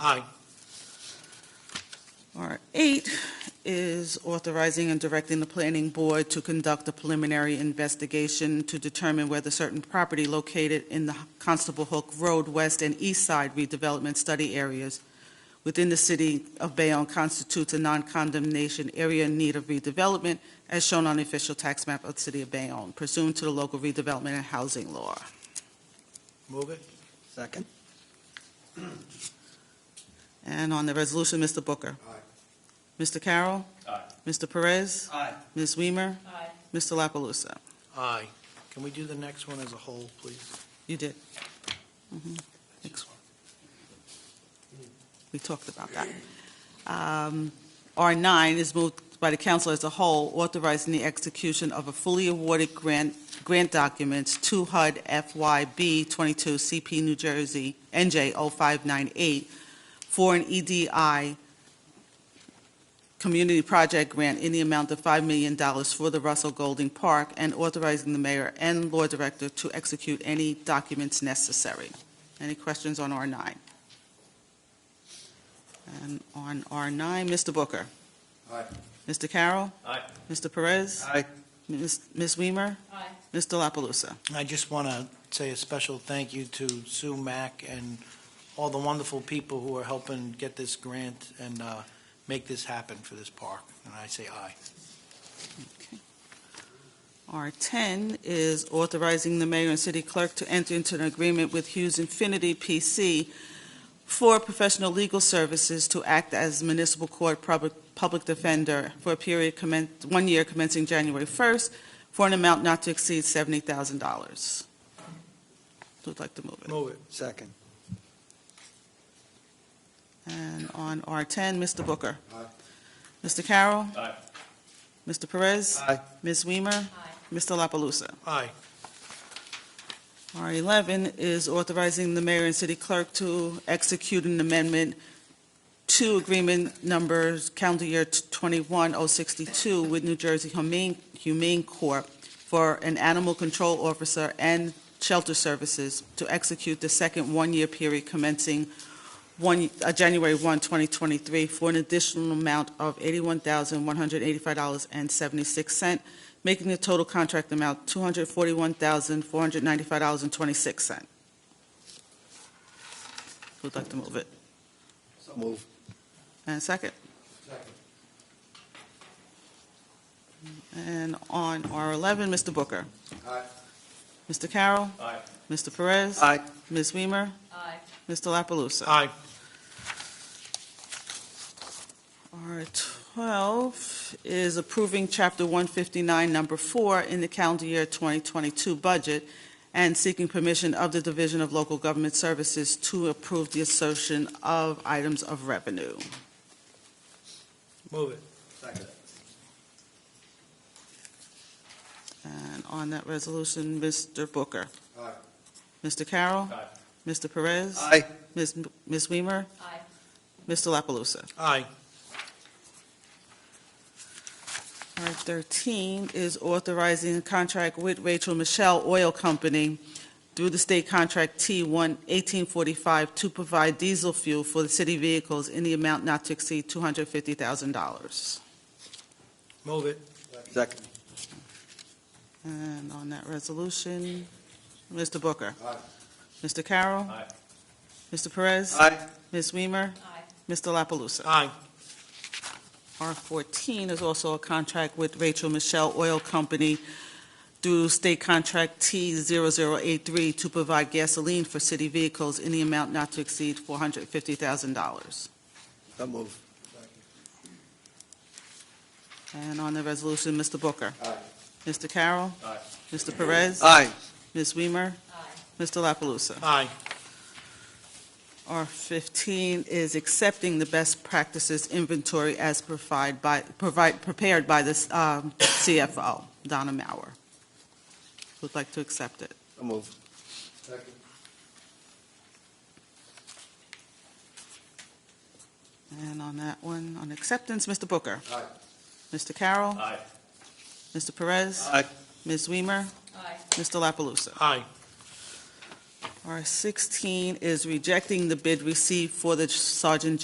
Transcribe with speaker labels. Speaker 1: Aye.
Speaker 2: R8 is authorizing and directing the planning board to conduct a preliminary investigation to determine whether certain property located in the Constable Hook Road West and East Side redevelopment study areas within the city of Bayonne constitutes a non-condemnation area in need of redevelopment, as shown on the official tax map of the city of Bayonne pursuant to the local redevelopment and housing law.
Speaker 1: Move it.
Speaker 3: Second.
Speaker 2: And on the resolution, Mr. Booker.
Speaker 1: Aye.
Speaker 2: Mr. Carroll.
Speaker 1: Aye.
Speaker 2: Mr. Perez.
Speaker 3: Aye.
Speaker 2: Ms. Weimer.
Speaker 4: Aye.
Speaker 2: Mr. La Palusa.
Speaker 1: Aye. Can we do the next one as a whole, please?
Speaker 2: You did. Mhm. Thanks. We talked about that. Um, R9 is moved by the council as a whole, authorizing the execution of a fully awarded grant, grant documents to HUD FYB 22 CP New Jersey oh NJ 0598 for an EDI community project grant in the amount of $5 million for the Russell Golding Park and authorizing the mayor and law director to execute any documents necessary. Any questions on R9? And on R9, Mr. Booker.
Speaker 1: Aye.
Speaker 2: Mr. Carroll.
Speaker 1: Aye.
Speaker 2: Mr. Perez.
Speaker 3: Aye.
Speaker 2: Ms. Ms. Weimer.
Speaker 4: Aye.
Speaker 2: Mr. La Palusa.
Speaker 1: I just want to say a special thank you to Sue Mack and all the wonderful people who are helping get this grant and uh, make this happen for this park. And I say aye.
Speaker 2: R10 is authorizing the mayor and city clerk to enter into an agreement with Hughes Infinity PC for professional legal services to act as municipal court public public defender for a period commen, one year commencing January 1st, for an amount not to exceed $70,000. Who'd like to move it?
Speaker 1: Move it.
Speaker 3: Second.
Speaker 2: And on R10, Mr. Booker.
Speaker 3: Aye.
Speaker 2: Mr. Carroll.
Speaker 1: Aye.
Speaker 2: Mr. Perez.
Speaker 3: Aye.
Speaker 2: Ms. Weimer. Mr. La Palusa.
Speaker 1: Aye.
Speaker 2: R11 is authorizing the mayor and city clerk to execute an amendment to agreement number calendar year 21062 with New Jersey Humane Humane Corp. for an animal control officer and shelter services to execute the second one-year period commencing one, uh, January 1, 2023, for an additional amount of $81,185.76 making the total contract amount $241,495.26. Who'd like to move it?
Speaker 3: So move.
Speaker 2: And a second? And on R11, Mr. Booker.
Speaker 3: Aye.
Speaker 2: Mr. Carroll.
Speaker 1: Aye.
Speaker 2: Mr. Perez.
Speaker 3: Aye.
Speaker 2: Ms. Weimer.
Speaker 4: Aye.
Speaker 2: Mr. La Palusa.
Speaker 1: Aye.
Speaker 2: R12 is approving Chapter 159, Number 4, in the calendar year 2022 budget and seeking permission of the Division of Local Government Services to approve the assertion of items of revenue.
Speaker 1: Move it.
Speaker 3: Second.
Speaker 2: And on that resolution, Mr. Booker.
Speaker 3: Aye.
Speaker 2: Mr. Carroll.
Speaker 1: Aye.
Speaker 2: Mr. Perez.
Speaker 3: Aye.
Speaker 2: Ms. Ms. Weimer.
Speaker 4: Aye.
Speaker 2: Mr. La Palusa.
Speaker 1: Aye.
Speaker 2: R13 is authorizing a contract with Rachel Michelle Oil Company through the state contract T-1-1845 to provide diesel fuel for the city vehicles in the amount not to exceed $250,000.
Speaker 1: Move it.
Speaker 3: Second.
Speaker 2: And on that resolution, Mr. Booker.
Speaker 3: Aye.
Speaker 2: Mr. Carroll.
Speaker 1: Aye.
Speaker 2: Mr. Perez.
Speaker 3: Aye.
Speaker 2: Ms. Weimer.
Speaker 4: Aye.
Speaker 2: Mr. La Palusa.
Speaker 1: Aye.
Speaker 2: R14 is also a contract with Rachel Michelle Oil Company through State Contract T-0083 to provide gasoline for city vehicles in the amount not to exceed $450,000.
Speaker 3: So move.
Speaker 2: And on the resolution, Mr. Booker.
Speaker 3: Aye.
Speaker 2: Mr. Carroll.
Speaker 1: Aye.
Speaker 2: Mr. Perez.
Speaker 3: Aye.
Speaker 2: Ms. Weimer.
Speaker 4: Aye.
Speaker 2: Mr. La Palusa.
Speaker 1: Aye.
Speaker 2: R15 is accepting the best practices inventory as provide by, provide, prepared by the um, CFO, Donna Mauer. Would like to accept it.
Speaker 3: So move. Second.
Speaker 2: And on that one, on acceptance, Mr. Booker.
Speaker 3: Aye.
Speaker 2: Mr. Carroll.
Speaker 1: Aye.
Speaker 2: Mr. Perez.
Speaker 3: Aye.
Speaker 2: Ms. Weimer.
Speaker 4: Aye.
Speaker 2: Mr. La Palusa.
Speaker 1: Aye.
Speaker 2: R16 is rejecting the bid received for the Sergeant